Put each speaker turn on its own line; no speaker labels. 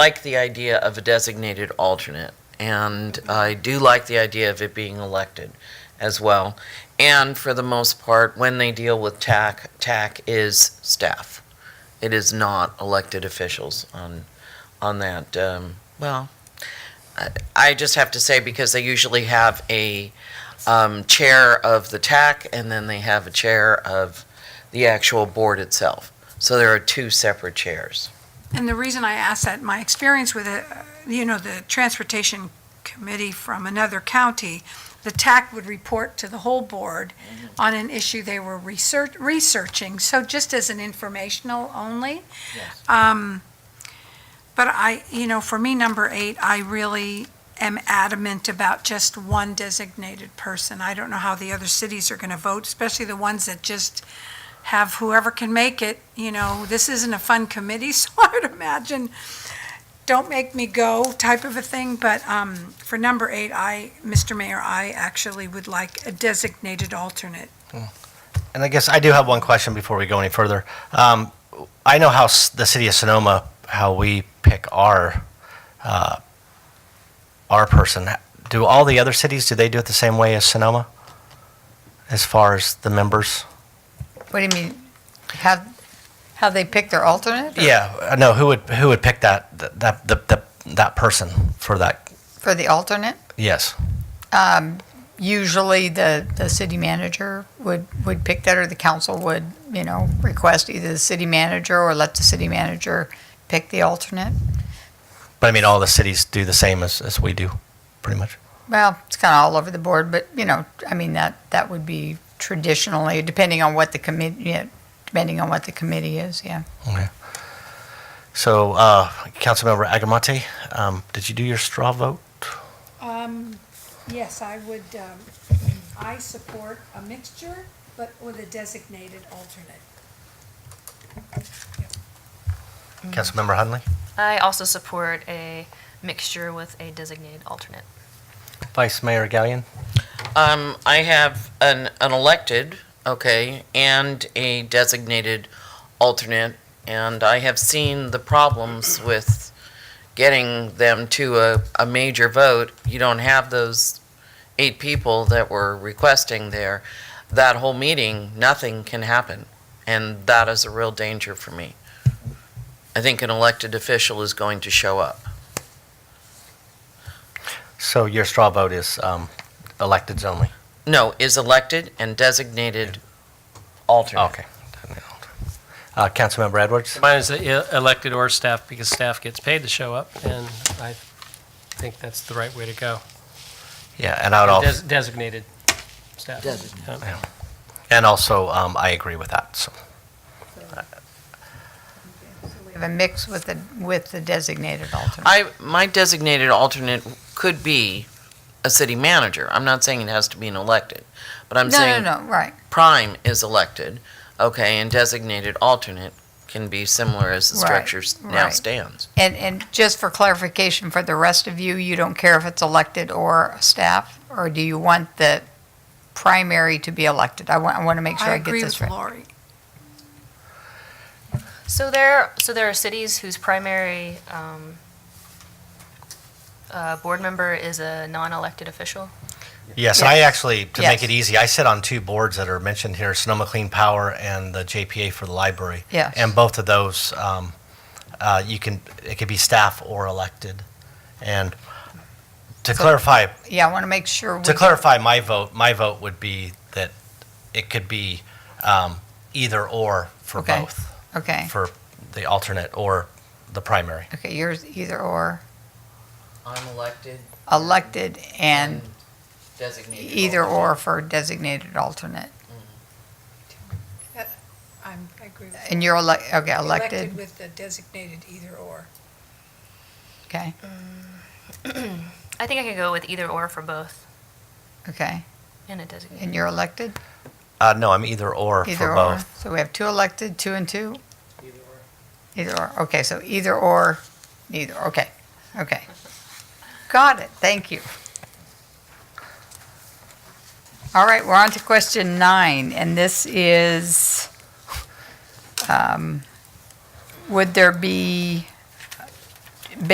like the idea of a designated alternate, and I do like the idea of it being elected as well. And for the most part, when they deal with TAC, TAC is staff. It is not elected officials on, on that. um, Well, I- I just have to say, because they usually have a um, chair of the TAC, and then they have a chair of the actual board itself. So there are two separate chairs.
And the reason I asked that, my experience with it, uh, you know, the transportation committee from another county, the TAC would report to the whole board on an issue they were research, researching, so just as an informational only. Um, But I, you know, for me, number eight, I really am adamant about just one designated person. I don't know how the other cities are gonna vote, especially the ones that just have whoever can make it, you know, this isn't a fun committee, so I would imagine, don't make me go type of a thing, but um, for number eight, I, Mr. Mayor, I actually would like a designated alternate.
And I guess I do have one question before we go any further. Um, I know how s- the city of Sonoma, how we pick our, uh, our person. Do all the other cities, do they do it the same way as Sonoma? As far as the members?
What do you mean? How, how they pick their alternate? or
Yeah, I know, Uh, who would, who would pick that, that, the, the, that person for that?
For the alternate?
Yes.
Usually the, the city manager would, would pick that or the council would, you know, request either the city manager or let the city manager pick the alternate.
But I mean, all the cities do the same as, as we do, pretty much.
Well, it's kind of all over the board, but you know, I mean, that, that would be traditionally, depending on what the committee, yeah, depending on what the committee is, yeah.
Okay. So, uh, Councilmember Agamate, um, did you do your straw vote?
Um, yes, I would, um, I support a mixture, but with a designated alternate.
Councilmember Hunley?
I also support a mixture with a designated alternate.
Vice Mayor Gallion?
Um, I have an, an elected, okay, and a designated alternate, and I have seen the problems with getting them to a, a major vote. You don't have those eight people that were requesting there. That whole meeting, nothing can happen, and that is a real danger for me. I think an elected official is going to show up.
So your straw vote is, um, electeds only?
No, is elected and designated alternate.
Okay. Uh, Councilmember Edwards?
Mine is e- elected or staff because staff gets paid to show up, and I think that's the right way to go.
Yeah, and I would
Des-
also,
Designated staff.
Designated.
Yeah.
and also, um, I agree with that, so.
We Have a mix with the, with the designated alternate.
I, my designated alternate could be a city manager. I'm not saying it has to be an elected, but I'm
No, no,
saying
no, right.
prime is elected, okay, and designated alternate can be similar as the
Right,
structure s- now
right.
stands.
And, and just for clarification, for the rest of you, you don't care if it's elected or staff? Or do you want the primary to be elected? I want, I want to make sure
I
I get
agree
this
with
right.
Lori.
So there, so there are cities whose primary um, uh, board member is a non-elected official.
Yes, and I actually, to make
Yes.
it easy, I sit on two boards that are mentioned here, Sonoma Clean Power and the JPA for the library.
Yes.
And both of those, um, uh, you can, it could be staff or elected. And to clarify,
Yeah, I want to make sure. we
to
get-
clarify my vote, my vote would be that it could be um, either or for
Okay.
both,
Okay,
for the alternate or the primary.
okay, yours either or,
I'm elected
elected and
designated.
either or for designated alternate.
I'm, I agree with
And you're elec, okay, elected,
with the designated either or.
okay,
I think I could go with either or for both
okay.
and a designated.
And you're elected,
Uh, no, I'm either or
either
for
or.
both.
So we have two elected, two and two? Either or, okay, so either or, neither, okay, okay. Got it, thank you. All right, we're on to question nine, and this is, um, would there be